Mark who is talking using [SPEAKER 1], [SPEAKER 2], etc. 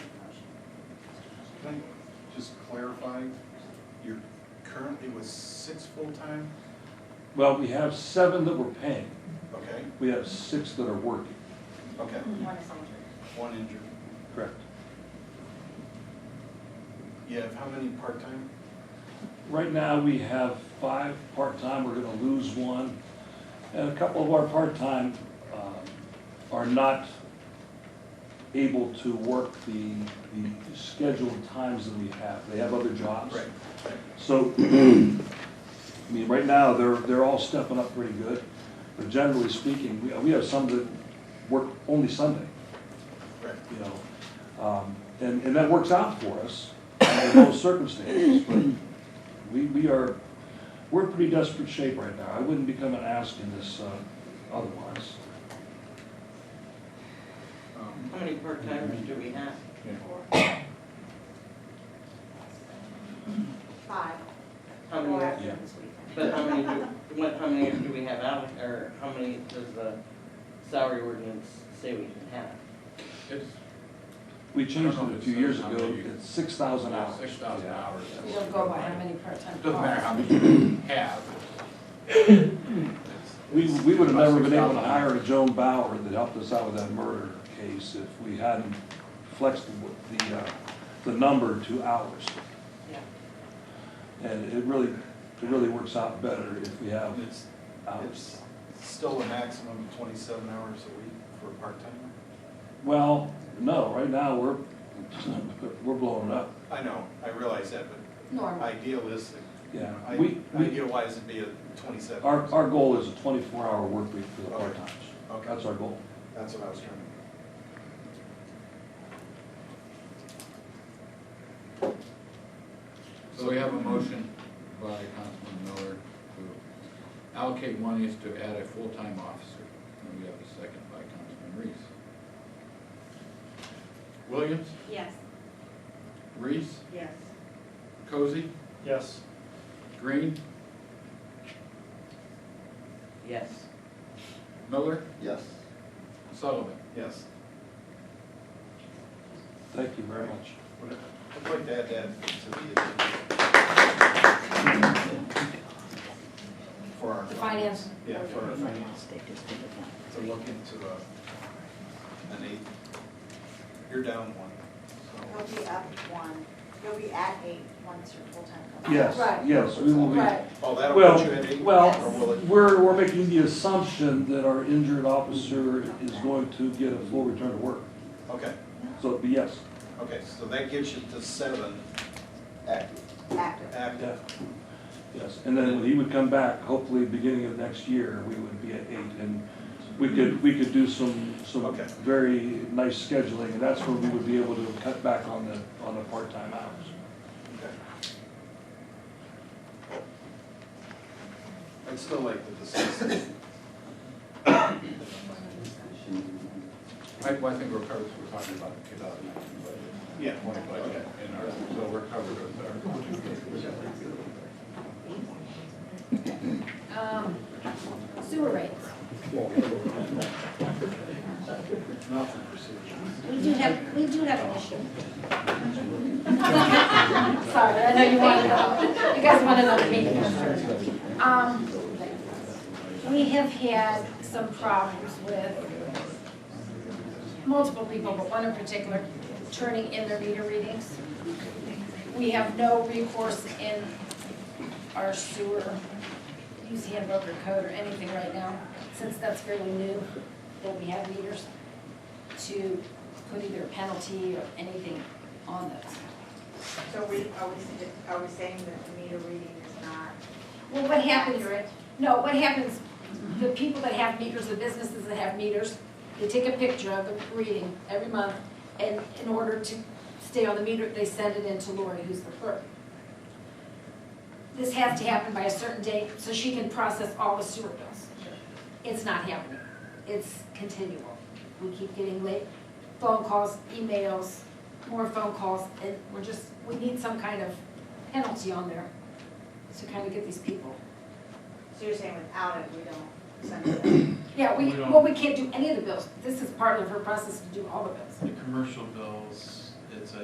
[SPEAKER 1] Can I just clarify, you're currently with six full-time,
[SPEAKER 2] Well, we have seven that we're paying.
[SPEAKER 1] okay,
[SPEAKER 2] We have six that are working.
[SPEAKER 1] okay,
[SPEAKER 3] One is soldier.
[SPEAKER 1] one injured.
[SPEAKER 2] Correct.
[SPEAKER 1] You have how many part-time?
[SPEAKER 2] Right now, we have five part-time, we're gonna lose one. And a couple of our part-time um, are not able to work the, the scheduled times that we have. They have other jobs.
[SPEAKER 1] Right.
[SPEAKER 2] So, I mean, right now, they're, they're all stepping up pretty good, but generally speaking, we, we have some that work only Sunday,
[SPEAKER 1] Right,
[SPEAKER 2] you know? Um, and, and that works out for us under those circumstances, but we, we are, we're in pretty desperate shape right now. I wouldn't be coming asking this, uh, otherwise.
[SPEAKER 1] um,
[SPEAKER 4] How many part-timers do we have?
[SPEAKER 3] Five.
[SPEAKER 4] How
[SPEAKER 3] Four
[SPEAKER 4] many,
[SPEAKER 3] after
[SPEAKER 2] Yeah.
[SPEAKER 3] this weekend.
[SPEAKER 4] but how many do, what, how many do we have out, or how many does the salary ordinance say we can have?
[SPEAKER 5] It's
[SPEAKER 2] We changed it a few years ago, it's six thousand hours.
[SPEAKER 5] six thousand hours.
[SPEAKER 6] We don't go by how many part-time cars.
[SPEAKER 5] Doesn't matter how many you have.
[SPEAKER 2] We, we would have never been able to
[SPEAKER 5] $6,000.
[SPEAKER 2] hire a Joan Bauer that helped us out with that murder case if we hadn't flexed the- the, uh, the number to hours.
[SPEAKER 4] Yeah.
[SPEAKER 2] And it really, it really works out better if we have
[SPEAKER 1] and it's,
[SPEAKER 2] hours.
[SPEAKER 1] it's still a maximum of twenty-seven hours a week for a part-timer?
[SPEAKER 2] Well, no, right now, we're, we're blowing it up,
[SPEAKER 1] I know, I realize that, but
[SPEAKER 6] Normal.
[SPEAKER 1] idealistic,
[SPEAKER 2] yeah.
[SPEAKER 1] I-
[SPEAKER 2] We, we,
[SPEAKER 1] ideal-wise, it'd be a twenty-seven.
[SPEAKER 2] our, our goal is a twenty-four hour work week for the
[SPEAKER 1] Okay.
[SPEAKER 2] part-timers.
[SPEAKER 1] Okay.
[SPEAKER 2] That's our goal.
[SPEAKER 1] That's what I was trying to.
[SPEAKER 5] So we have a motion by Councilman Miller to allocate monies to add a full-time officer. And we have a second by Councilman Reese. Williams,
[SPEAKER 3] Yes.
[SPEAKER 5] Reese,
[SPEAKER 3] Yes.
[SPEAKER 5] Cozy,
[SPEAKER 1] Yes.
[SPEAKER 5] Green,
[SPEAKER 4] Yes.
[SPEAKER 5] Miller,
[SPEAKER 1] Yes.
[SPEAKER 5] Sullivan.
[SPEAKER 1] Yes.
[SPEAKER 2] Thank you very much.
[SPEAKER 1] Would- I'd like to add that to the agenda. For our.
[SPEAKER 6] The finance.
[SPEAKER 1] Yeah, for our finance. To look into uh, an eight. You're down one.
[SPEAKER 3] He'll be up one, he'll be at eight once your full-time comes.
[SPEAKER 2] Yes,
[SPEAKER 6] Right.
[SPEAKER 2] yes, we will be.
[SPEAKER 6] Right,
[SPEAKER 1] So- Oh, that'll
[SPEAKER 2] Well,
[SPEAKER 1] put you at eight? Or will
[SPEAKER 2] well,
[SPEAKER 1] it?
[SPEAKER 2] we're, we're making the assumption that our injured officer is going to get a full return to work.
[SPEAKER 1] Okay,
[SPEAKER 2] So, it'd be yes,
[SPEAKER 1] okay, so that gets you to seven. Active.
[SPEAKER 3] Active.
[SPEAKER 1] Active.
[SPEAKER 2] def- yes. And then when he would come back, hopefully beginning of next year, we would be at eight. And we could, we could do some, some
[SPEAKER 1] Okay.
[SPEAKER 2] very nice scheduling, and that's when we would be able to cut back on the, on the part-time hours.
[SPEAKER 1] Okay. I'd still like to discuss it.
[SPEAKER 5] I, well, I think we're covered, we're talking about the two thousand nineteen budget.
[SPEAKER 1] Yeah.
[SPEAKER 5] Twenty budget in our, so we're covered with our.
[SPEAKER 6] um, sewer rates.
[SPEAKER 1] Nothing for sewage.
[SPEAKER 6] We do have, we do have an issue. Sorry, I know you want to know, you guys want to know the meeting. Um, we have had some problems with multiple people, but one in particular, turning in their meter readings. We have no recourse in our sewer use handbook or code or anything right now, since that's fairly new, that we have meters to put either a penalty or anything on those.
[SPEAKER 3] So we, are we, are we saying that the meter reading is not
[SPEAKER 6] Well, what happens,
[SPEAKER 3] accurate?
[SPEAKER 6] no, what happens, the people that have meters, the businesses that have meters, they take a picture of the reading every month, and in order to stay on the meter, they send it in to Lori, who's the clerk. This has to happen by a certain date, so she can process all the sewer bills. It's not happening, it's continual. We keep getting late phone calls, emails, more phone calls, and we're just, we need some kind of penalty on there to kind of get these people.
[SPEAKER 3] So you're saying without it, we don't send it out?
[SPEAKER 6] Yeah, we,
[SPEAKER 7] We don't-
[SPEAKER 6] well, we can't do any of the bills. This is part of her process to do all the bills.
[SPEAKER 7] The commercial bills